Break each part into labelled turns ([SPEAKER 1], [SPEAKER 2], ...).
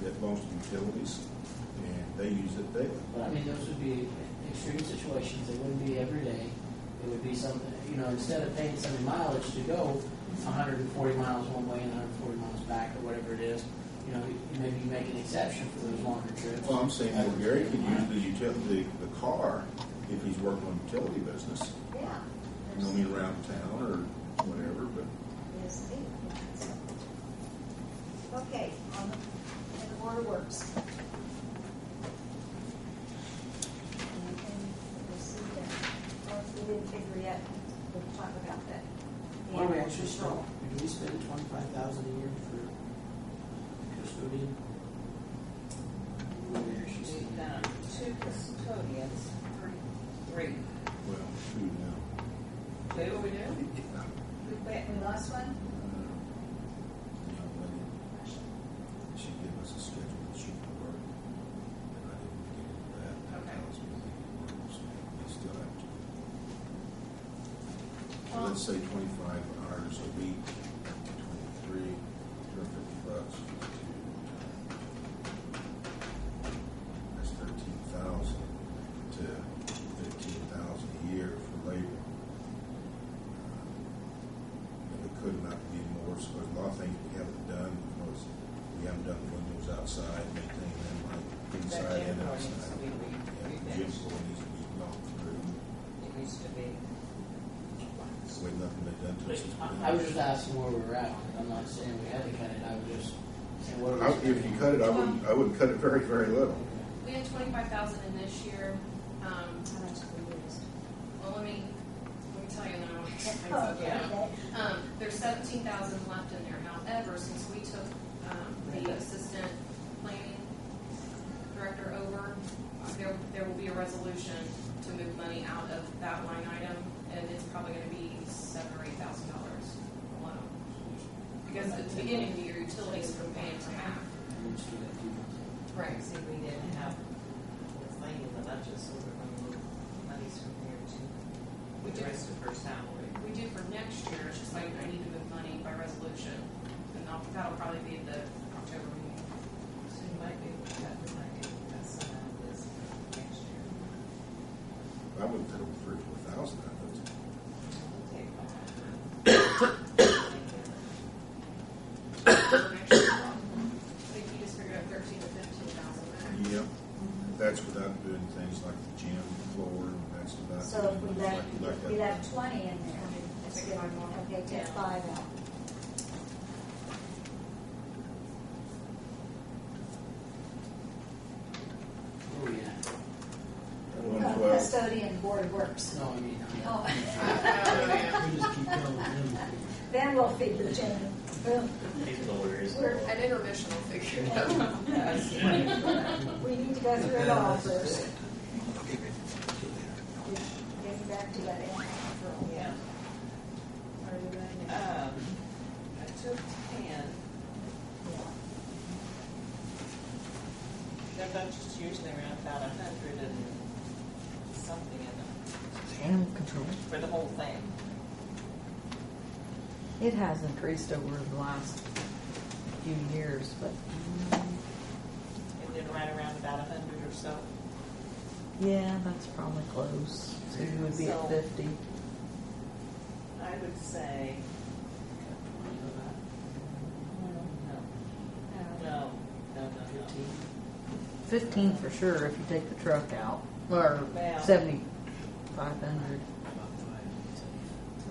[SPEAKER 1] belongs to utilities, and they use it daily.
[SPEAKER 2] But I mean, those would be extreme situations, it wouldn't be every day, it would be some, you know, instead of paying some mileage to go hundred and forty miles one way and hundred and forty miles back, or whatever it is, you know, you- maybe you make an exception for those longer trips.
[SPEAKER 1] Well, I'm saying, well, Gary could use the utility, the car, if he's working on utility business,
[SPEAKER 3] Yeah.
[SPEAKER 1] you know, I mean, around town or whatever, but.
[SPEAKER 3] Yes, indeed. Okay, on the, in the Board of Works. Anything that was said there? Or if we didn't figure yet, we'll talk about that.
[SPEAKER 2] What do we
[SPEAKER 3] Animal
[SPEAKER 2] actually spend,
[SPEAKER 3] control.
[SPEAKER 2] do we spend twenty-five thousand a year for custodian? What do we actually spend?
[SPEAKER 4] We've done two custodians, three.
[SPEAKER 1] Well, two now.
[SPEAKER 4] Two we do?
[SPEAKER 3] We went, we lost one?
[SPEAKER 1] Uh, young lady, She gave us a schedule that she could work, and I didn't get into that.
[SPEAKER 4] Okay.
[SPEAKER 1] I was really, so we still have to. So
[SPEAKER 3] Well-
[SPEAKER 1] let's say twenty-five hours a week, twenty-three, two hundred fifty bucks, two. uh, That's thirteen thousand to fifteen thousand a year for labor. Uh, And it could not be more, so there's a lot of things we haven't done, because we haven't done windows outside, maintain them like
[SPEAKER 4] That
[SPEAKER 1] inside and
[SPEAKER 4] gym
[SPEAKER 1] outside.
[SPEAKER 4] floor needs to be
[SPEAKER 1] Yeah, the
[SPEAKER 4] re-
[SPEAKER 1] gym
[SPEAKER 4] refinished.
[SPEAKER 1] floor needs to be knocked through.
[SPEAKER 4] It needs to be.
[SPEAKER 1] That's the way nothing been done to us. has been-
[SPEAKER 2] I, I was just asking where we're at, I'm not saying we had to cut it, I was just saying what
[SPEAKER 1] I-
[SPEAKER 2] are
[SPEAKER 1] If
[SPEAKER 2] we spending?
[SPEAKER 1] you cut it, I wouldn't, I wouldn't cut it very, very little.
[SPEAKER 5] We had twenty-five thousand in this year, um,
[SPEAKER 3] How much did we lose?
[SPEAKER 5] well, let me, let me tell you, and then I'll explain
[SPEAKER 3] Oh,
[SPEAKER 5] something out.
[SPEAKER 3] okay.
[SPEAKER 5] Um, there's seventeen thousand left in there, however, since we took, um, the assistant planning director over, uh, there, there will be a resolution to move money out of that line item, and it's probably gonna be seven or eight thousand dollars alone. Because at the beginning of the year, utilities were paying for half.
[SPEAKER 2] We'll just do that few months.
[SPEAKER 5] Right.
[SPEAKER 4] See, we didn't have, it's like in the budget, so we're gonna move monies from here to
[SPEAKER 5] We
[SPEAKER 4] the
[SPEAKER 5] did.
[SPEAKER 4] rest of her salary.
[SPEAKER 5] We do for next year, it's just like I need to move money by resolution, and I'll- that'll probably be at the October meeting.
[SPEAKER 4] So you might be able to cut, we might be able to cut some out of this for next year.
[SPEAKER 1] I wouldn't cut it with three, or four thousand out of it.
[SPEAKER 4] We'll take all.
[SPEAKER 5] For next year, I think you just figured out thirteen to fifteen thousand.
[SPEAKER 1] Yep, that's without doing things like the gym floor, and that's without.
[SPEAKER 3] So if
[SPEAKER 1] doing
[SPEAKER 3] we
[SPEAKER 1] things
[SPEAKER 3] left,
[SPEAKER 1] like- like
[SPEAKER 3] if
[SPEAKER 1] that.
[SPEAKER 3] we left twenty in there, let's get, okay, take five out.
[SPEAKER 2] Where are we at?
[SPEAKER 1] That one
[SPEAKER 3] Uh,
[SPEAKER 1] twelve,
[SPEAKER 3] Custodian Board of Works.
[SPEAKER 2] No, I mean,
[SPEAKER 3] Oh.
[SPEAKER 5] I
[SPEAKER 2] we just keep going. then
[SPEAKER 3] Then we'll figure it out. Boom.
[SPEAKER 6] He's hilarious.
[SPEAKER 3] We're-
[SPEAKER 5] An intermission will figure it out.
[SPEAKER 3] We need to go through it all first. Getting back to that animal control.
[SPEAKER 4] Yeah. Are you going, um, I took ten, their budget's usually around about a hundred and something in them,
[SPEAKER 7] Animal control.
[SPEAKER 4] for the whole thing.
[SPEAKER 7] It has increased over the last few years, but
[SPEAKER 4] And then right around about a hundred or so.
[SPEAKER 7] yeah, that's probably close. So you would be
[SPEAKER 4] So-
[SPEAKER 7] at 50.
[SPEAKER 4] I would say. No,
[SPEAKER 3] Uh,
[SPEAKER 4] no, no, no.
[SPEAKER 7] 15 for sure if you take the truck out, or
[SPEAKER 4] Well.
[SPEAKER 7] 7,500.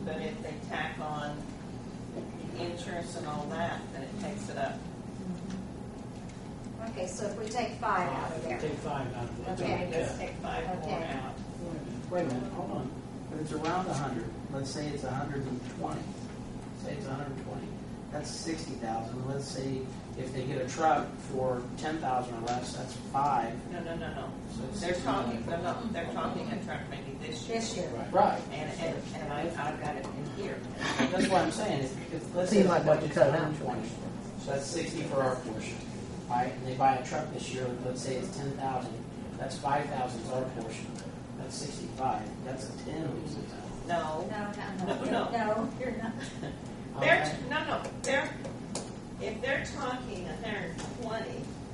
[SPEAKER 4] But if they tack on insurance and all that, then it takes it up.
[SPEAKER 3] Okay, so if we take five out of there,
[SPEAKER 2] Take five out of it.
[SPEAKER 4] Okay, let's
[SPEAKER 2] Yeah.
[SPEAKER 4] take five more
[SPEAKER 3] Okay.
[SPEAKER 4] out.
[SPEAKER 2] Wait a minute, hold on. If it's around a hundred, let's say it's a hundred and twenty. Say it's a hundred and twenty. That's sixty thousand. Let's say if they get a truck for ten thousand or less, that's five.
[SPEAKER 4] No, no, no, no.
[SPEAKER 2] So it's
[SPEAKER 4] They're
[SPEAKER 2] 60.
[SPEAKER 4] talking, no, no, they're talking a truck maybe this year.
[SPEAKER 3] this year,
[SPEAKER 2] Right.
[SPEAKER 4] And, and, and I, I've got it in here.
[SPEAKER 2] That's what I'm saying. Is if, let's
[SPEAKER 7] So
[SPEAKER 2] say
[SPEAKER 7] you
[SPEAKER 2] the
[SPEAKER 7] might want to
[SPEAKER 2] budget's
[SPEAKER 7] cut it out.
[SPEAKER 2] 120. So that's sixty for our portion. All right, and they buy a truck this year. Let's say it's ten thousand. That's five thousand is our portion. That's sixty-five. That's a ten.
[SPEAKER 4] No,
[SPEAKER 3] no, no, no,
[SPEAKER 4] No, no.
[SPEAKER 3] no, you're not.
[SPEAKER 4] they're, no, no, they're, if they're talking a hundred and twenty,